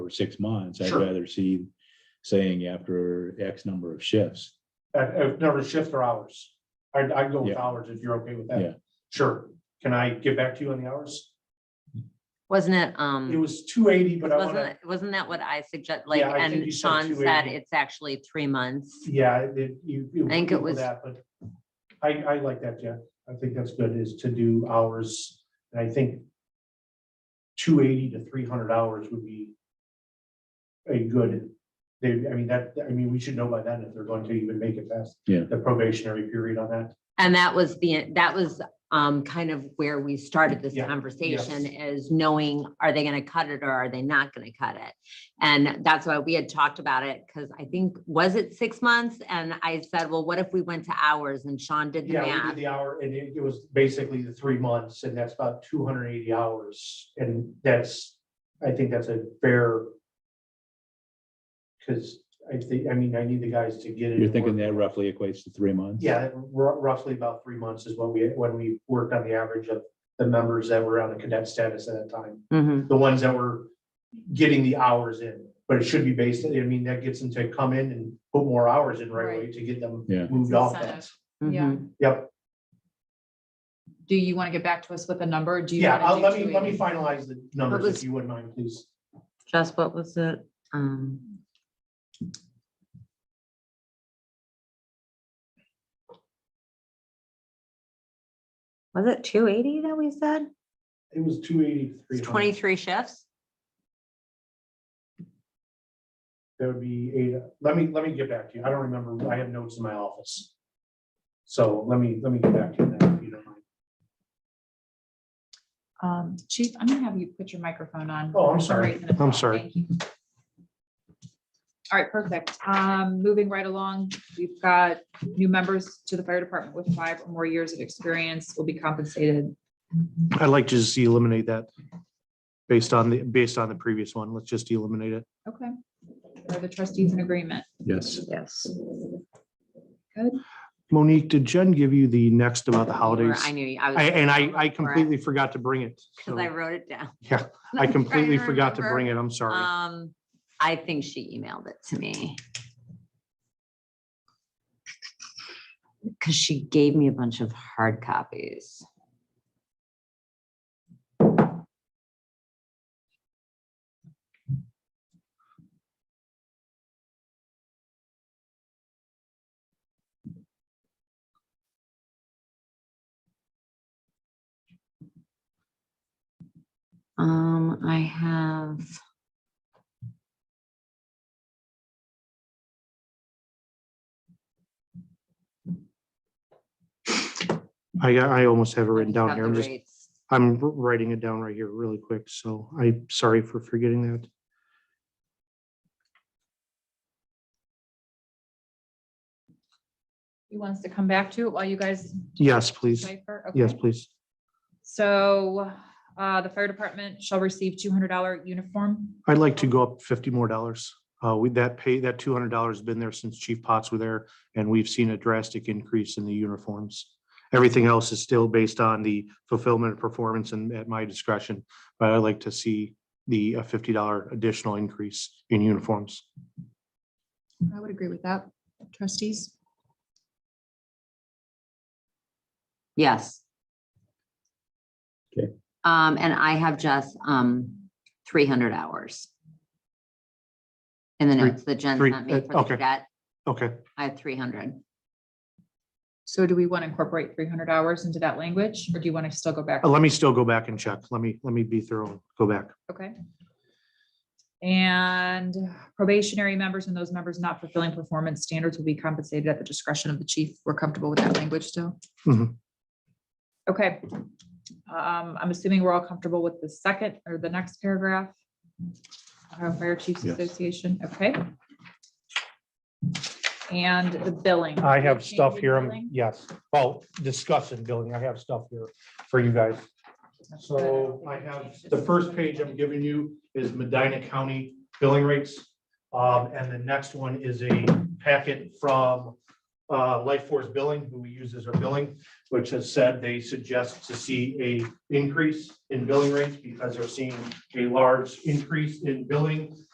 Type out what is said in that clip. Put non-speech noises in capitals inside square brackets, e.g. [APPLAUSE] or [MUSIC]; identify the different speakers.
Speaker 1: six months. I'd
Speaker 2: Sure.
Speaker 1: rather see saying after X number of shifts.
Speaker 2: Uh, if never shift or hours. I'd, I'd go with
Speaker 1: Yeah.
Speaker 2: hours if you're okay with
Speaker 1: Yeah.
Speaker 2: that. Sure. Can I get back to you on the hours?
Speaker 3: Wasn't it,
Speaker 2: It
Speaker 3: um,
Speaker 2: was two eighty, but I
Speaker 3: wasn't,
Speaker 2: wanna,
Speaker 3: it- wasn't that what I suggest, like,
Speaker 2: I think you
Speaker 3: and
Speaker 2: said
Speaker 3: Sean said
Speaker 2: 280.
Speaker 3: it's actually three months?
Speaker 2: yeah, it, you.
Speaker 3: I think it
Speaker 2: equal
Speaker 3: was-
Speaker 2: that, But I, I like that, Jeff. I think that's good is to do hours. And I think two eighty to three hundred hours would be a good, they, I mean, that, I mean, we should know by then if they're going to even make it past
Speaker 1: Yeah.
Speaker 2: the probationary period on that.
Speaker 3: And that was the, that was, um, kind of where we started this
Speaker 2: Yeah,
Speaker 3: conversation is knowing, are they gonna cut it or are they not gonna cut it? And that's why we had talked about it, because I think, was it six months? And I said, well, what if we went to hours and Sean did the
Speaker 2: Yeah, we
Speaker 3: math?
Speaker 2: did the hour and it, it was basically the three months and that's about two hundred and eighty hours. And that's, I think that's a fair. Cause I think, I mean, I need the guys to get it.
Speaker 1: You're thinking that roughly equates to three months?
Speaker 2: Yeah, ru- roughly about three months is when we, when we worked on the average of the members that were on the cadet status at that time.
Speaker 3: Mhm.
Speaker 2: The ones that were getting the hours in, but it should be based, I mean, that gets them to come in and put more hours in right away
Speaker 4: Right.
Speaker 2: to get them
Speaker 1: Yeah.
Speaker 2: moved off that.
Speaker 4: Incentive. Yeah.
Speaker 3: mhm.
Speaker 2: Yep.
Speaker 4: Do you want to get back to us with a number? Do you?
Speaker 2: Yeah,
Speaker 4: wanna
Speaker 2: I'll,
Speaker 4: do
Speaker 2: let me, let me
Speaker 4: 280?
Speaker 2: finalize the numbers if
Speaker 3: was-
Speaker 2: you wouldn't mind, please.
Speaker 3: Jess, what was it? Um, was it two eighty that we said?
Speaker 2: It was two eighty-three.
Speaker 3: It's twenty-three shifts?
Speaker 2: That would be eight, let me, let me get back to you, I don't remember, I have notes in my office. So let me, let me get back to you on that if you don't mind.
Speaker 4: Um, Chief, I'm gonna have you put your microphone on.
Speaker 2: Oh, I'm
Speaker 4: For some
Speaker 2: sorry.
Speaker 4: reason it's
Speaker 2: I'm
Speaker 4: not.
Speaker 2: sorry.
Speaker 4: Thank you. All right, perfect. Um, moving right along, we've got new members to the fire department with five or more years of experience will be compensated.
Speaker 2: I'd like to just eliminate that based on the, based on the previous one. Let's just eliminate it.
Speaker 4: Okay. Are the trustees in agreement?
Speaker 1: Yes.
Speaker 3: Yes.
Speaker 2: Monique, did Jen give you the next about the
Speaker 3: Or
Speaker 2: holidays?
Speaker 3: I knew, you- I was.
Speaker 2: I- And I, I completely forgot to bring it.
Speaker 3: Cause I wrote it down.
Speaker 2: Yeah,
Speaker 3: [LAUGHS]
Speaker 2: I completely forgot to bring
Speaker 3: it.
Speaker 2: it. I'm sorry.
Speaker 3: Um, I think she emailed it to me. Cause she gave me a bunch of hard copies. Um, I have.
Speaker 2: I, I almost have it written down
Speaker 3: I've got
Speaker 2: here.
Speaker 3: the
Speaker 2: I'm just,
Speaker 3: rates.
Speaker 2: I'm writing it down right here really quick. So I'm sorry for forgetting that.
Speaker 4: You want us to come back to it while you guys
Speaker 2: Yes, please.
Speaker 4: decipher? Okay.
Speaker 2: Yes, please.
Speaker 4: So, uh, the fire department shall receive two hundred dollar uniform.
Speaker 2: I'd like to go up fifty more dollars. Uh, we, that pay, that two hundred dollars has been there since Chief Potts were there, and we've seen a drastic increase in the uniforms. Everything else is still based on the fulfillment of performance and at my discretion, but I'd like to see the uh, fifty dollar additional increase in uniforms.
Speaker 4: I would agree with that. Trustees?
Speaker 3: Yes.
Speaker 1: Okay.
Speaker 3: Um, and I have just, um, three hundred hours. In the
Speaker 2: Three-
Speaker 3: notes that Jen
Speaker 2: three-
Speaker 3: sent me
Speaker 2: uh,
Speaker 3: for the
Speaker 2: okay.
Speaker 3: cadet,
Speaker 2: Okay,
Speaker 3: I have three hundred.
Speaker 4: So do we want to incorporate three hundred hours into that language, or do you want to still go back?
Speaker 2: uh, let me still go back and check. Let me, let me be thorough, and go back.
Speaker 4: Okay. And probationary members and those members not fulfilling performance standards will be compensated at the discretion of the chief. We're comfortable with that language still?
Speaker 2: Mhm.
Speaker 4: Okay. Um, I'm assuming we're all comfortable with the second or the next paragraph. Ohio Fire Chiefs
Speaker 1: Yes.
Speaker 4: Association, okay? And the billing.
Speaker 2: I have stuff
Speaker 4: Change in
Speaker 2: here, I'm-
Speaker 4: billing?
Speaker 2: yes, well, discussing billing, I have stuff here for you guys. So I have, the first page I'm giving you is Medina County billing rates. Um, and the next one is a packet from, uh, Life Force Billing, who we use as our billing, which has said they suggest to see a increase in billing rates because they're seeing a large increase in billing